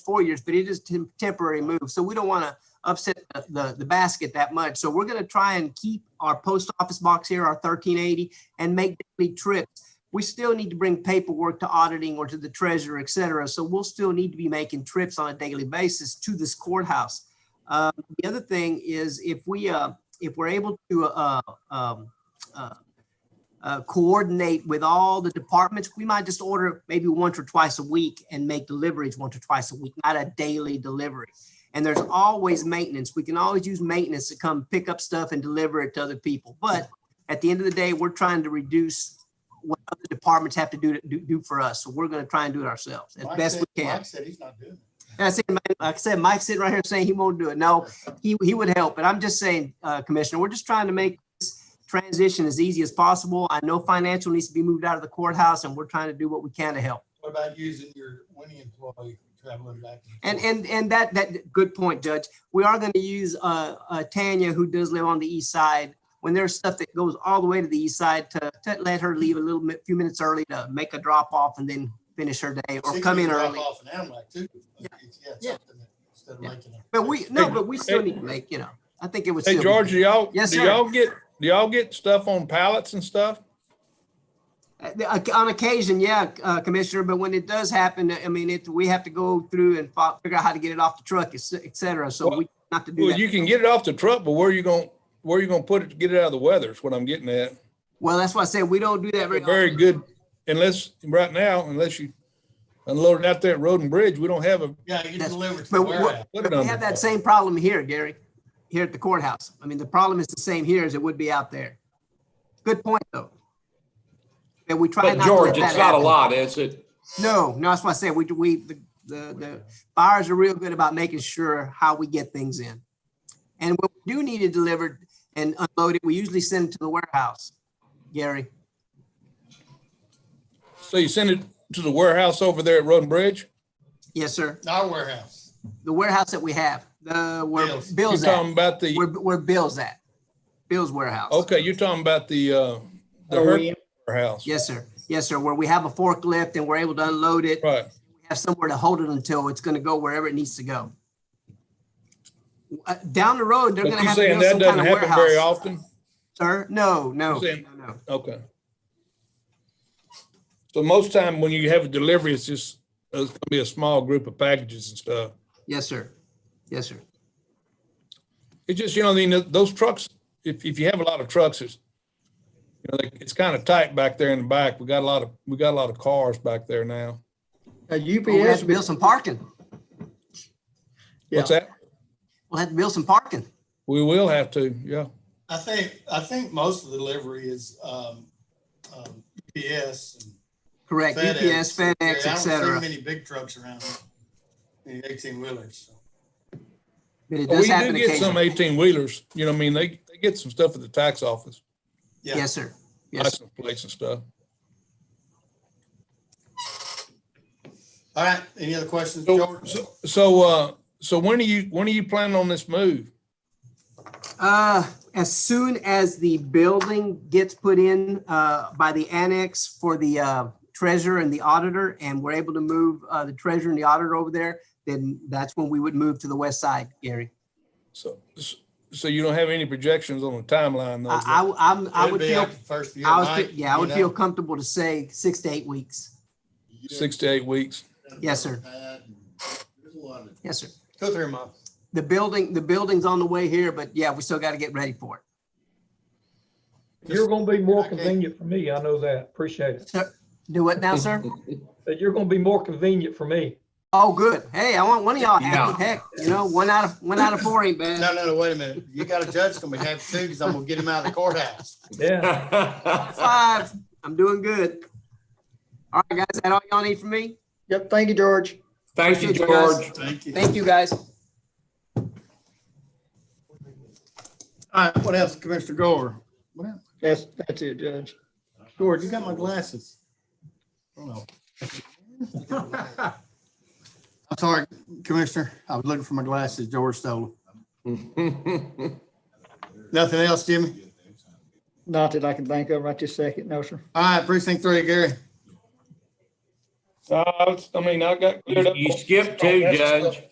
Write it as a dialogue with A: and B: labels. A: four years, but it is tem- temporary move. So we don't want to upset the- the, the basket that much. So we're going to try and keep our post office box here, our 1380, and make daily trips. We still need to bring paperwork to auditing or to the treasurer, et cetera. So we'll still need to be making trips on a daily basis to this courthouse. Um, The other thing is if we, uh, if we're able to uh, um, uh, uh, coordinate with all the departments. We might just order maybe once or twice a week and make deliveries once or twice a week, not a daily delivery. And there's always maintenance. We can always use maintenance to come pick up stuff and deliver it to other people. But at the end of the day, we're trying to reduce what other departments have to do, to do, do for us. So we're going to try and do it ourselves as
B: Mike
A: best
B: said-
A: we can.
B: Mike said he's not doing it.
A: And I said, Mike- like I said, Mike's sitting right here saying he won't do it. No, he, he would help, but I'm just saying, uh, Commissioner, we're just trying to make this transition as easy as possible. I know financial needs to be moved out of the courthouse and we're trying to do what we can to help.
B: What about using your winning employee traveling back?
A: And,
B: forth?
A: and, and that, that, good point, Judge. We are going to use, uh, uh, Tanya, who does live on the east side. When there's stuff that goes all the way to the east side to, to let her leave a little bit, few minutes early to make a drop off and then finish her day or
B: She
A: come
B: can
A: in
B: drop
A: early.
B: Off an Amlac too. It's- yeah, it's
A: Yeah.
B: something that- Instead of
A: Yeah.
B: making it.
A: But we, no, but we still need to make, you know, I think it was.
C: Hey, George, do y'all,
A: Yes,
C: do
A: sir.
C: y'all get, do y'all get stuff on pallets and stuff?
A: Uh, On occasion, yeah, uh, Commissioner, but when it does happen, I mean, it, we have to go through and fi- figure out how to get it off the truck, et ce- et cetera, so we not to do
C: Well,
A: that.
C: you can get it off the truck, but where are you going, where are you going to put it to get it out of the weather is what I'm getting at.
A: Well, that's why I said we don't do that very
C: Very
A: often.
C: good, unless, right now, unless you unload it out there at Road and Bridge, we don't have a,
B: Yeah, you
A: That's-
B: deliver to
A: but
B: the
A: what-
B: warehouse.
A: But
C: put it
A: we
C: under.
A: have that same problem here, Gary, here at the courthouse. I mean, the problem is the same here as it would be out there. Good point, though. That we try
D: But
A: not to let
D: George,
A: that
D: it's not a
A: happen.
D: lot, is it?
A: No, no, that's why I said we, we, the, the, the buyers are real good about making sure how we get things in. And when we do need it delivered and unloaded, we usually send it to the warehouse, Gary.
C: So you send it to the warehouse over there at Road and Bridge?
A: Yes, sir.
B: Our warehouse.
A: The warehouse that we have, the, where
B: Bill's.
C: You're
A: Bill's
C: talking
A: at,
C: about
A: where,
C: the,
A: where Bill's at. Bill's warehouse.
C: okay, you're talking about the, uh, the Herc warehouse.
A: Yes, sir. Yes, sir. Where we have a forklift and we're able to unload it,
C: Right.
A: we have somewhere to hold it until it's going to go wherever it needs to go. Uh, Down the road, they're going to
C: But you're
A: have to
C: saying
A: build some
C: that
A: kind
C: doesn't
A: of
C: happen very
A: warehouse.
C: often?
A: Sir, no, no,
C: You're saying-
A: no, no.
C: Okay. So most time when you have a delivery, it's just, uh, it's gonna be a small group of packages and stuff.
A: Yes, sir. Yes, sir.
C: It's just, you know, I mean, those trucks, if, if you have a lot of trucks, it's, you know, like, it's kind of tight back there in the back. We got a lot of, we got a lot of cars back there now.
E: A
A: Well, We have
E: UPS,
A: to build some parking.
C: What's that?
A: We'll have to build some parking.
C: We will have to, yeah.
B: I think, I think most of the delivery is, um, um, UPS and
A: Correct. UPS,
B: FedEx. Yeah,
A: FedEx,
B: I
A: et
B: don't see
A: cetera.
B: Many big trucks around, the eighteen wheelers.
A: But it
C: We
A: does
C: do
A: happen
C: get some
A: occasionally.
C: eighteen wheelers, you know, I mean, they, they get some stuff at the tax office,
B: Yeah.
A: Yes, sir. Yes. sir.
C: license plates and stuff.
B: All right, any other questions,
C: So,
B: George?
C: so- so, uh, so when are you, when are you planning on this move?
A: Uh, as soon as the building gets put in, uh, by the annex for the, uh, treasurer and the auditor, and we're able to move, uh, the treasurer and the auditor over there, then that's when we would move to the west side, Gary.
C: So, so you don't have any projections on the timeline
A: I,
C: though?
A: I, I'm, I
B: It'd
A: would
B: be
A: feel,
B: after the First year,
A: I was,
B: Mike,
A: yeah, I
B: you
A: would
B: know?
A: feel comfortable to say six to eight weeks.
C: Six to eight weeks.
A: Yes, sir.
B: There's a lot of-
A: Yes, sir.
B: Two, three months.
A: The building, the building's on the way here, but yeah, we still got to get ready for it.
E: you're gonna be more
B: Okay.
E: convenient for me, I know that, appreciate it.
A: Do what now, sir?
E: But you're gonna be more convenient for me.
A: Oh, good. Hey, I want one of y'all happy.
D: Yeah.
A: Heck, you know, one out of, one out of four ain't bad.
B: No, no, no, wait a minute. You got a judge gonna be happy too, because I'm gonna get him out of the courthouse.
E: Yeah,
A: Five. I'm doing good. All right, guys, is that all y'all need from me?
E: yep, thank you, George.
D: Thank you, George.
B: Thank you.
A: Thank you, guys.
B: All right, what else, Commissioner Gore? What else?
E: That's, that's it, uh, Judge.
B: George, you got my glasses. Oh, no. I'm sorry, Commissioner. I was looking for my glasses. George stole them. Nothing else, Jimmy?
E: Not that I can think of right this second, no, sir.
B: All right, precinct three, Gary.
F: Uh, I was- I mean, I got cleared
C: You
F: up.
C: you skipped two, Judge.